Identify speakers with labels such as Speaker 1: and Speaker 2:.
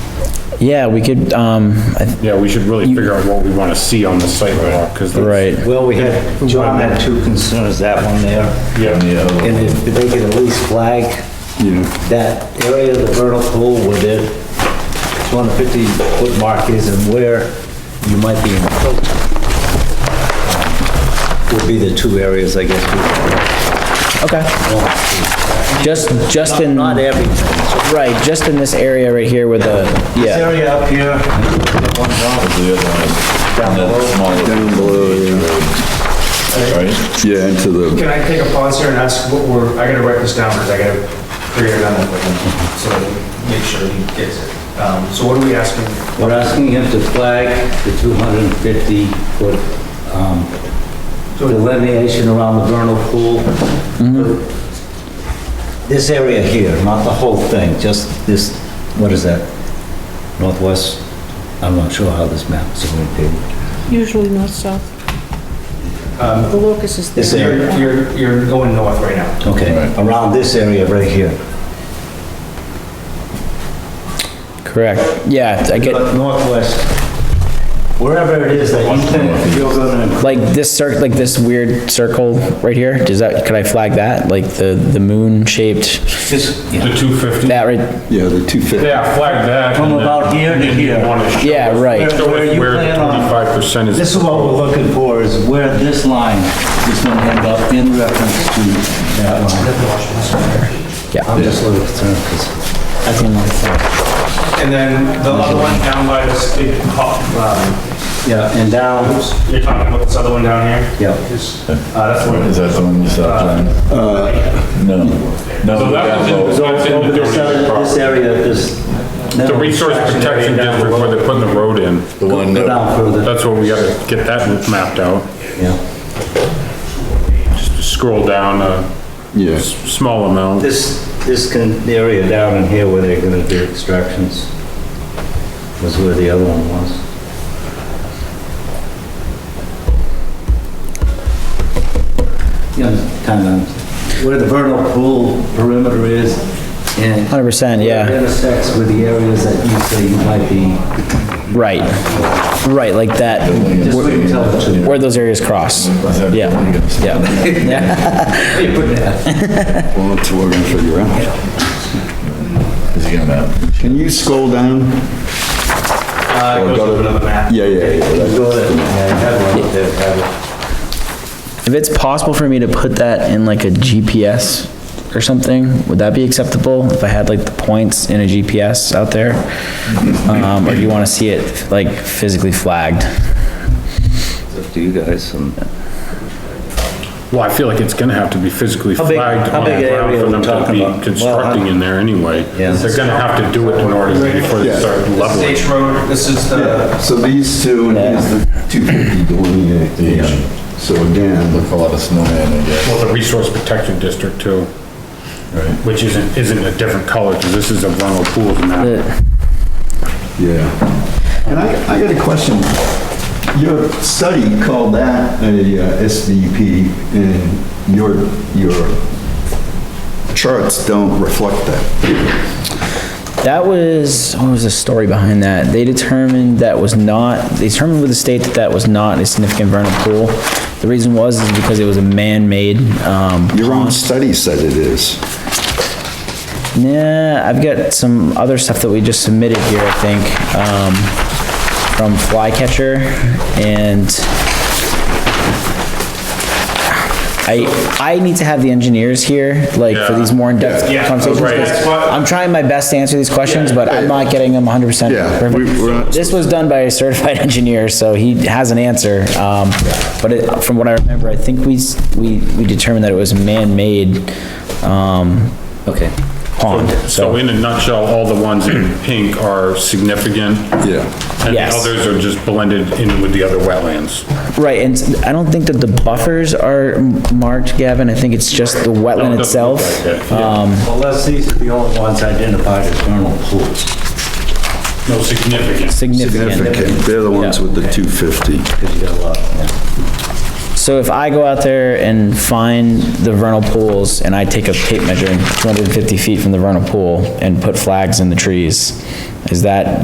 Speaker 1: Yeah, we could, um, I th-
Speaker 2: Yeah, we should really figure out what we wanna see on the sidewalk, cause. that's-
Speaker 1: right,
Speaker 3: Well, we had, John had two concerns, that one there.
Speaker 2: Yeah,
Speaker 3: And if they could at least flag that area of the vertical with it, 250 foot mark is and where you might be encroaching. Would be the two areas, I guess. we-
Speaker 1: okay. Just, just in,
Speaker 3: Not everything.
Speaker 1: right, just in this area right here with the,
Speaker 3: This
Speaker 1: yeah,
Speaker 3: area up here. Down below.
Speaker 4: Down below, yeah. Yeah, into the,
Speaker 5: Can I take a pause here and ask what we're, I gotta write this down because I gotta figure it out that way, so make sure he gets it. Um, so what are we asking?
Speaker 3: We're asking him to flag the 250 foot um, delineation around the vernal pool.
Speaker 4: Mm-hmm.
Speaker 3: This area here, not the whole thing, just this, what is that? Northwest? I'm not sure how this map is going to be.
Speaker 6: Usually north-south. The locus is
Speaker 3: This
Speaker 6: there.
Speaker 5: You're, you're, you're going north right now.
Speaker 3: Okay, around this area right here.
Speaker 1: correct, yeah, I get,
Speaker 3: But northwest, wherever it is that you think you're gonna,
Speaker 1: like this cir, like this weird circle right here, does that, could I flag that, like the, the moon shaped,
Speaker 3: this,
Speaker 2: the two fifty,
Speaker 1: that right,
Speaker 4: yeah, the two fifty.
Speaker 2: yeah, flag that.
Speaker 3: From
Speaker 2: and then-
Speaker 3: about here to
Speaker 2: and then you
Speaker 3: here.
Speaker 2: wanna show
Speaker 1: yeah,
Speaker 2: us
Speaker 1: right,
Speaker 2: Show
Speaker 3: Where
Speaker 2: us
Speaker 3: you
Speaker 2: where the
Speaker 3: plan on-
Speaker 2: twenty-five percent is.
Speaker 3: This is what we're looking for, is where this line is gonna end up in reference to that line.
Speaker 1: Yeah.
Speaker 3: I'm just a little concerned, because I didn't like that.
Speaker 5: And then the other one down by this big hop, um,
Speaker 3: Yeah, and down,
Speaker 5: you're talking about this other one down here?
Speaker 3: Yeah.
Speaker 5: Is- Uh, that's one,
Speaker 7: Is that the one you saw, John?
Speaker 1: Uh,
Speaker 7: No.
Speaker 2: So that
Speaker 7: No, that
Speaker 2: was in-
Speaker 7: vote.
Speaker 2: that's in the
Speaker 3: this
Speaker 2: donation
Speaker 3: area, this
Speaker 2: property.
Speaker 3: area, this.
Speaker 2: The resource protection district where they're putting the road in,
Speaker 7: The one
Speaker 3: Go
Speaker 7: that,
Speaker 3: down further,
Speaker 2: that's where we gotta get that mapped out.
Speaker 3: yeah.
Speaker 2: Scroll down a s-
Speaker 4: Yes.
Speaker 2: small amount.
Speaker 3: This, this can, the area down in here where they're gonna do extractions was where the other one was. you know, kind of, where the vernal pool perimeter is and.
Speaker 1: hundred percent,
Speaker 3: where it
Speaker 1: yeah,
Speaker 3: Intersects with the areas that you say you might be,
Speaker 1: right. Right, like that,
Speaker 3: just wait until the two.
Speaker 1: where those areas cross, yeah, yeah,
Speaker 4: Well, that's what we're gonna figure out.
Speaker 7: is he gonna,
Speaker 4: Can you scroll down?
Speaker 5: uh, goes up another map.
Speaker 4: Yeah, yeah, yeah. that's-
Speaker 3: Go there, yeah, have one up there, have it.
Speaker 1: If it's possible for me to put that in like a GPS or something, would that be acceptable? If I had like the points in a GPS out there? Um, or do you wanna see it like physically flagged?
Speaker 3: Up to you guys and.
Speaker 2: Well, I feel like it's gonna have to be physically
Speaker 3: big-
Speaker 2: flagged
Speaker 3: how
Speaker 2: on the
Speaker 3: big
Speaker 2: ground
Speaker 3: area
Speaker 2: for
Speaker 3: we're
Speaker 2: them to
Speaker 3: talking about?
Speaker 2: be
Speaker 3: Well,
Speaker 2: constructing in there anyway.
Speaker 3: Yeah.
Speaker 2: They're gonna have to do it in order before they start leveling.
Speaker 5: Stage road, this is the,
Speaker 3: Uh,
Speaker 4: Yeah, so these two, and here's the two fifty delineation. So again,
Speaker 7: look a lot of snowman, I guess.
Speaker 2: Well, the resource protection district too. Which isn't, isn't a different color, cause this is a vernal pools map.
Speaker 1: The-
Speaker 4: yeah. And I, I got a question. Your study called that a uh, SDP, and your, your charts don't reflect that.
Speaker 1: That was, what was the story behind that? They determined that was not, they determined with the state that that was not a significant vernal pool. The reason was is because it was a man-made, um,
Speaker 4: Your own study said it is.
Speaker 1: Nah, I've got some other stuff that we just submitted here, I think, um, from Flycatcher and I, I need to have the engineers here, like, for these more in-depth
Speaker 5: Yeah. Yeah,
Speaker 1: conversations.
Speaker 5: right.
Speaker 1: 'cause
Speaker 5: That's what-
Speaker 1: I'm trying my best to answer these questions, but I'm not getting them hundred percent
Speaker 4: Yeah, we- we're
Speaker 1: perfect.
Speaker 4: not-
Speaker 1: This was done by a certified engineer, so he has an answer, um, but it- from what I remember, I think we, s- we, we determined that it was man-made, um,
Speaker 3: Okay.
Speaker 1: pond,
Speaker 2: So
Speaker 1: so,
Speaker 2: in a nutshell, all the ones in pink are significant.
Speaker 4: Yeah.
Speaker 2: And the
Speaker 1: Yes.
Speaker 2: others are just blended in with the other wetlands.
Speaker 1: right, and s- I don't think that the buffers are m- marked, Gavin, I think it's just the
Speaker 2: Don't-
Speaker 1: wetland
Speaker 2: don't look
Speaker 1: itself. Uh,
Speaker 2: like that, yeah.
Speaker 3: Unless these are the only ones identified as vernal pools.
Speaker 2: No significance.
Speaker 1: Significant.
Speaker 4: Significant, they're the ones with the two fifty.
Speaker 1: So if I go out there and find the vernal pools and I take a tape measure 250 feet from the vernal pool and put flags in the trees, is that